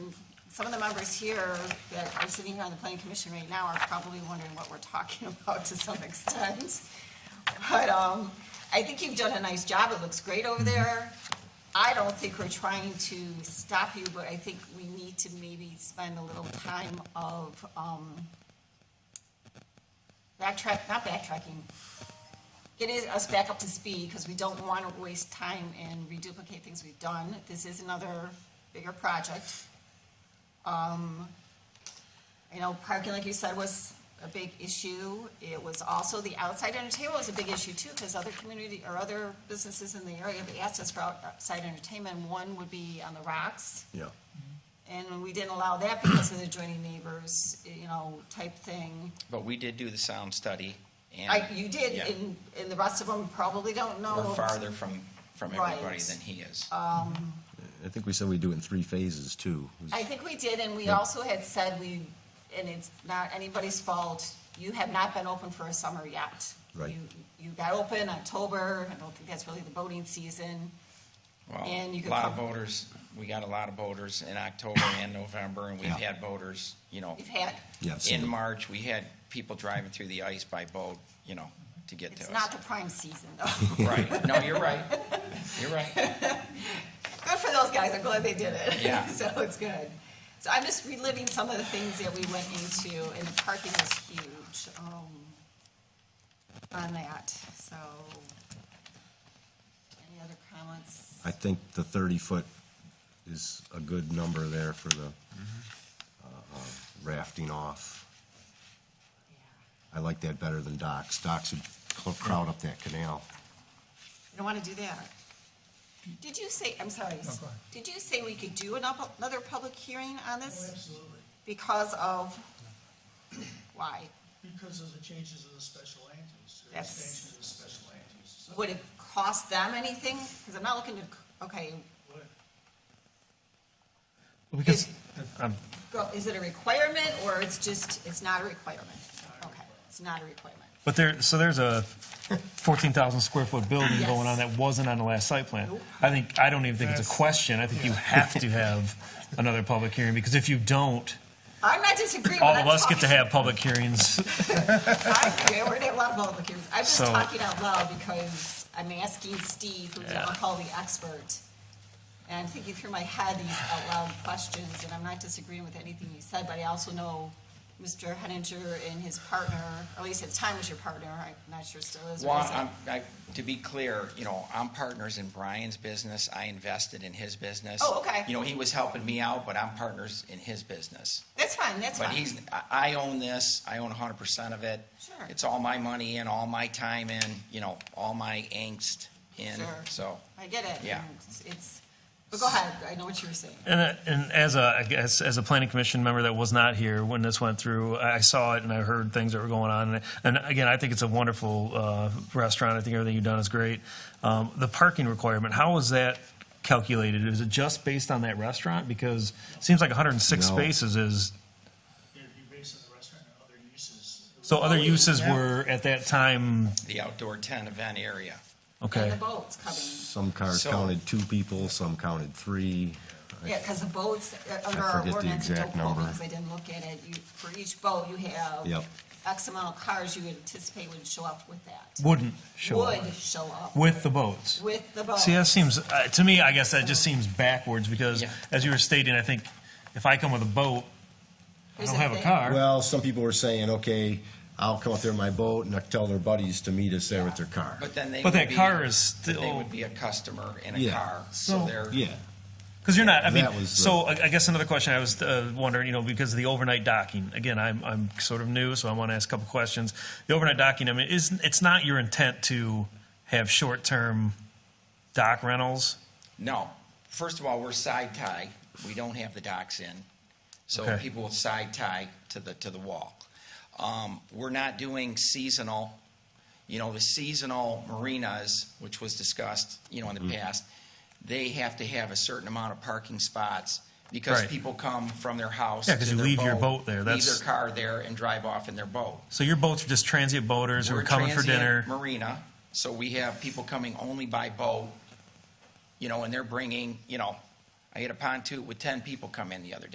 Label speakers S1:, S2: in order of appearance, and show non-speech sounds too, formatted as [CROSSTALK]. S1: some of the members here that are sitting here on the planning commission right now are probably wondering what we're talking [LAUGHS] about to some extent. But, um, I think you've done a nice job, it looks great over there. I don't think we're trying to stop you, but I think we need to maybe spend a little time of, um, backtrack, not backtracking, getting us back up to speed, because we don't want to waste time and reduplicate things we've done. This is another bigger project. Um, you know, parking, like you said, was a big issue. It was also the outside entertainment was a big issue too, because other community, or other businesses in the area have asked us for outside entertainment. One would be on the rocks.
S2: Yeah.
S1: And we didn't allow that because of the adjoining neighbors, you know, type thing.
S3: But we did do the sound study
S1: I,
S3: and
S1: you did,
S3: Yeah.
S1: and, and the rest of them probably don't know.
S3: we're farther from, from
S1: Right. Uh,
S3: everybody than he is.
S2: I think we said we do it in three phases too.
S1: I think we did, and we also had said we, and it's not anybody's fault, you have not been open for a summer yet.
S2: Right.
S1: You- You got open October, I don't think that's really the boating season.
S3: Well,
S1: And you
S3: a
S1: could
S3: lot of
S1: come-
S3: voters, we got a lot of voters in October and November and we've
S2: Yeah.
S3: had voters, you know,
S1: We've had,
S2: Yeah, I've seen
S3: in
S2: it.
S3: March, we had people driving through the ice by boat, you know, to get
S1: it's
S3: to
S1: not
S3: us.
S1: the prime season, though. [LAUGHS]
S2: [LAUGHS]
S3: Right, no, you're right, you're right.
S1: Good for those guys, I'm glad they did it.
S3: Yeah.
S1: [LAUGHS] So it's good. So I'm just reliving some of the things that we went into, and the parking was huge, um, on that, so. Any other comments?
S2: I think the thirty foot is a good number there for the
S3: Mm-hmm.
S2: uh, uh, rafting off.
S1: Yeah.
S2: I like that better than docks. Docks would cl- crowd up that canal.
S1: I don't want to do that. Did you say, I'm sorry, did you say we could do an up- another public hearing on this?
S4: Oh, Absolutely,
S1: Because of, why?
S4: because of the changes of the special land use, or
S1: Yes.
S4: expansion of the special land use. So
S1: Would it cost them anything? Because I'm not looking to, okay,
S4: what-
S5: Because, um,
S1: go- is it a requirement or it's just, it's not a requirement? Okay, it's not a requirement.
S5: but there, so there's a 14,000 square foot building
S1: Yes.
S5: going on that wasn't on the last site plan.
S1: Nope.
S5: I think, I don't even think it's a question. I think you have to have another public hearing, because if you don't,
S1: I'm not disagreeing.
S5: all
S1: but I'm
S5: of us get to
S1: talking-
S5: have public hearings.
S1: I, yeah, we're gonna have a lot of public hearings. I'm just
S5: So-
S1: talking out loud because I'm asking Steve, who's
S5: Yeah.
S1: what I call the expert. And I'm thinking through my head these out loud questions, and I'm not disagreeing with anything you said, but I also know Mr. Henninger and his partner, or at least at the time was your partner, I'm not sure still is. or
S3: Well,
S1: is it?
S3: I'm, I, to be clear, you know, I'm partners in Brian's business, I invested in his business.
S1: Oh, okay.
S3: You know, he was helping me out, but I'm partners in his business.
S1: That's fine, that's
S3: But
S1: fine.
S3: he's, I I own this, I own hundred percent of it.
S1: Sure.
S3: It's all my money in, all my time in, you know, all my angst in,
S1: Sure.
S3: so.
S1: I get it.
S3: Yeah.
S1: and it's- It's, but go ahead, I know what you were saying.
S5: And, uh, and as a, I guess, as a planning commission member that was not here when this went through, I I saw it and I heard things that were going on. And- And again, I think it's a wonderful uh, restaurant. I think everything you've done is great. Um, The parking requirement, how was that calculated? Is it just based on that restaurant? Because it seems like 106
S2: No.
S5: spaces is,
S4: you're, you're basing the restaurant on other uses.
S5: so
S1: Oh,
S5: other uses
S4: Yeah.
S5: were at that time,
S3: The outdoor tent event area.
S1: And
S5: okay.
S1: the boats coming,
S2: Some cars
S3: So-
S2: counted two people, some counted three.
S1: yeah, because the boats, uh, under our
S2: forget the
S1: ordinance, and don't
S2: exact
S1: quote me
S2: number.
S1: because I didn't look at it, you, for each boat, you have
S2: Yep.
S1: X amount of cars you anticipate would show up with that.
S5: Wouldn't show up.
S1: Would show up
S5: With the boats.
S1: with the boat.
S5: See, that seems, uh, to me, I guess that just seems backwards because,
S3: Yeah.
S5: as you were stating, I think if I come with a boat, I
S1: Here's
S5: don't
S1: the
S5: have a
S1: thing.
S5: car.
S2: Well, some people were saying, okay, I'll come up there in my boat and I'll tell their buddies to meet us there with their car.
S3: But then they
S5: But
S3: would
S5: that
S3: be-
S5: car is
S3: but They
S5: still-
S3: would be a customer in a
S2: Yeah.
S3: car, so
S5: So-
S3: they're.
S2: Yeah,
S5: Because you're not, I mean,
S2: That was the-
S5: so I I guess another question I was uh, wondering, you know, because of the overnight docking, again, I'm, I'm sort of new, so I want to ask a couple questions. The overnight docking, I mean, is, it's not your intent to have short-term dock rentals?
S3: No. First of all, we're side tie. We don't have the docks in. So
S5: Okay.
S3: people will side tie to the, to the wall. Um, we're not doing seasonal, you know, the seasonal marinas, which was discussed, you know, in
S5: Mm-hmm.
S3: the past, they have to have a certain amount of parking spots because
S5: Right.
S3: people come from their house.
S5: Yeah, 'cause
S3: to
S5: you
S3: their
S5: leave your boat there.
S3: Leave
S5: That's-
S3: their car there and drive off in their boat.
S5: So your boats are just transient boaters who
S3: We're
S5: are coming for
S3: transient
S5: dinner?
S3: Marina, so we have people coming only by boat, you know, and they're bringing, you know, I had a pontoon with ten people come in the other day.